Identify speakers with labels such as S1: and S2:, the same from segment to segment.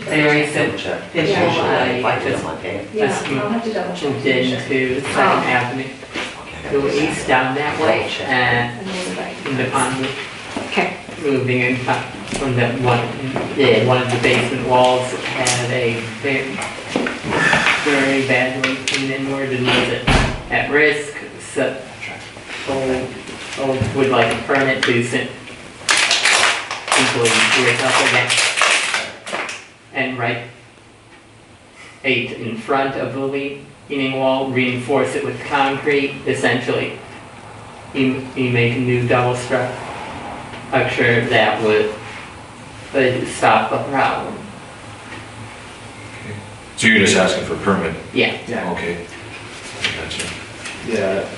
S1: There is a
S2: check.
S1: fish
S3: Yeah.
S1: usually like
S2: Like
S1: this
S2: on my page.
S3: Yeah,
S1: Just keep
S3: I'll have to double check.
S1: moved into Second Avenue, go east down that way, and
S3: And then like-
S1: the pond
S3: Okay,
S1: moving in fa- from that one, yeah, one of the basement walls had a very, very bad leak inward and was it at risk, so old, old would like to burn it to send people to it up again. And right eight in front of the leaning wall, reinforce it with concrete, essentially. You, you make a new double structure I'm sure that would, would stop the problem.
S4: So you're just asking for a permit?
S1: Yeah.
S5: Yeah.
S4: Okay. Gotcha.
S5: Yeah,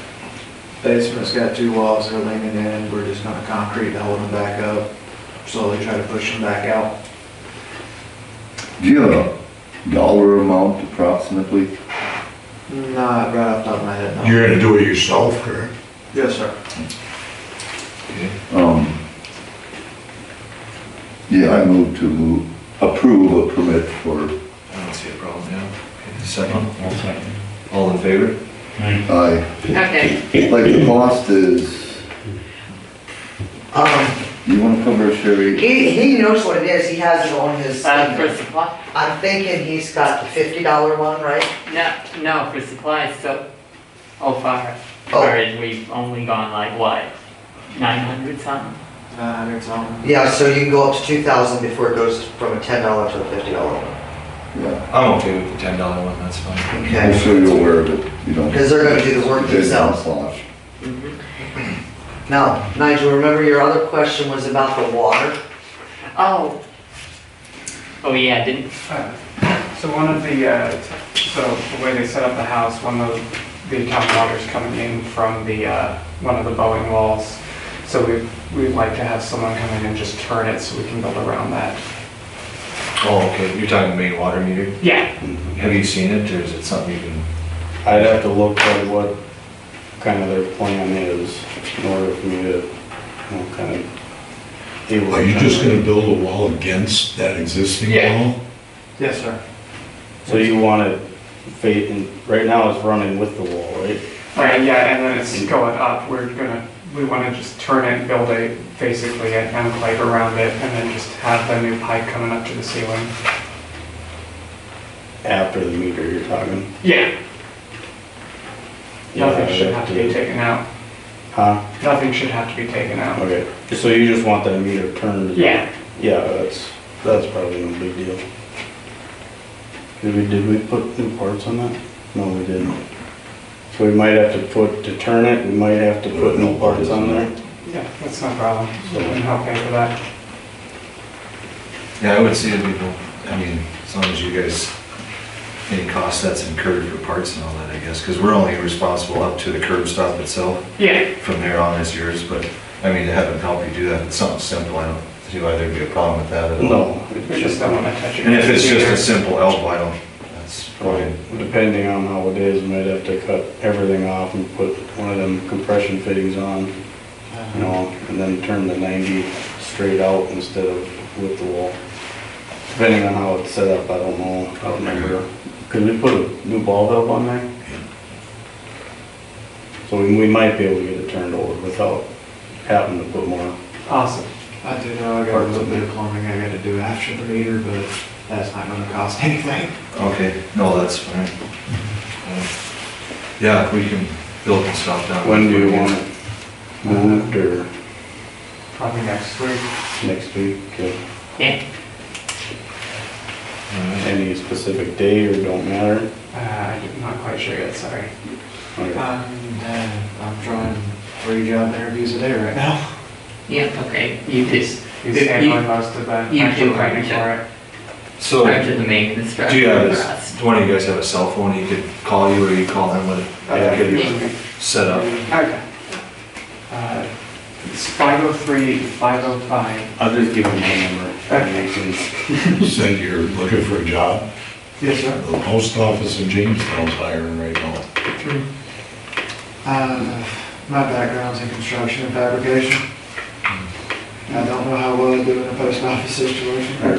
S5: basement's got two walls, they're leaning in, we're just gonna concrete to hold them back up, slowly try to push them back out.
S6: Do you have a dollar amount approximately?
S5: Not right off the top of my head, no.
S7: You're gonna do it yourself, or?
S5: Yes, sir.
S4: Okay.
S6: Um, Yeah, I move to approve a permit for,
S4: I don't see a problem, yeah. Okay, Second? All second. All in favor?
S6: I,
S1: Okay,
S6: like the cost is,
S2: Um,
S6: you wanna cover Sherry?
S2: he, he knows what it is, he has it on his,
S1: uh, for supply,
S2: I'm thinking he's got the fifty dollar one, right?
S1: no, no, for supplies, so, oh, far,
S2: Oh.
S1: far as we've only gone like what, nine hundred something?
S5: Nine hundred something.
S2: Yeah, so you can go up to two thousand before it goes from a ten dollar to a fifty dollar one.
S6: Yeah,
S4: I'm okay with the ten dollar one, that's fine.
S6: I'm
S2: Okay,
S6: sure you're aware of it, you don't.
S2: because they're gonna do the work
S6: They don't
S2: themselves.
S6: slosh.
S1: Mhm.
S2: Now, Nigel, remember your other question was about the water?
S1: Oh. Oh, yeah, didn't,
S8: So one of the, uh, so the way they set up the house, one of the town water's coming in from the, uh, one of the bowing walls. So we, we'd like to have someone come in and just turn it so we can build around that.
S4: Oh, okay, you're talking main water meter?
S8: Yeah.
S4: Have you seen it, or is it something you can?
S9: I'd have to look at what kind of their plan is in order for me to, you know, kind of deal with.
S7: Are you
S9: that.
S7: just gonna build a wall against that existing
S9: Yeah.
S7: wall?
S5: Yes, sir.
S9: So you want to fade, and right now it's running with the wall, right?
S8: Right, yeah, and then it's going up, we're gonna, we wanna just turn it, build a, basically an enclave around it, and then just have the new pipe coming up to the ceiling.
S9: After the meter you're talking.
S8: Yeah.
S9: Yeah,
S8: Nothing should
S9: I'd
S8: have to be taken out,
S9: Huh?
S8: nothing should have to be taken out.
S9: Okay, so you just want that meter turned?
S8: Yeah.
S9: Yeah, that's, that's probably no big deal. Did we, did we put new parts on that? No, we didn't. So we might have to put, to turn it, we might have to put new parts on there.
S8: Yeah, that's no problem, we can help pay for that.
S4: Yeah, I would see it, people, I mean, as long as you guys, any cost that's incurred for parts and all that, I guess, because we're only responsible up to the curb stop itself.
S8: Yeah,
S4: From there on is yours, but, I mean, to have them help you do that, it's something simple, I don't see why there'd be a problem with that at all.
S9: No.
S8: we just don't wanna touch it.
S4: And if it's just a simple elbow, I don't, that's probably,
S9: Depending on how it is, might have to cut everything off and put one of them compression fittings on, you know, and then turn the ninety straight out instead of with the wall. Depending on how it's set up, I don't know, I don't remember. Could we put a new ball valve on there? So we we might be able to get it turned over without having to put more.
S8: Awesome.
S5: I do know I got a little bit of plumbing I gotta do after the meter, but that's not gonna cost anything.
S4: okay, no, that's fine. Yeah, if we can build and stop down.
S9: When do you want it moved or
S8: Probably next week.
S9: next week? or
S1: yeah,
S4: Alright.
S9: Any specific day or don't matter?
S8: Uh, I'm not quite sure yet, sorry.
S9: Or-
S5: And, uh, I'm trying three job interviews a day right now.
S1: yeah, okay, you just,
S8: He's
S1: You-
S8: handling most of the
S1: you
S8: actual
S1: do have to-
S8: planning for it.
S4: So.
S1: start to the main
S4: Do
S1: construction
S4: you have,
S1: for
S4: his-
S1: us.
S4: do one of you guys have a cell phone, you could call you, or you call him with, it? I could get you set up.
S8: Okay. Uh, It's 503, 505.
S9: I'll just give him my number. That makes sense.
S7: Said you're looking for a job?
S5: Yes, sir.
S7: The post office in Jamestown's hiring right now.
S5: Uh, My background's in construction and fabrication. I don't know how well I do in a post office situation.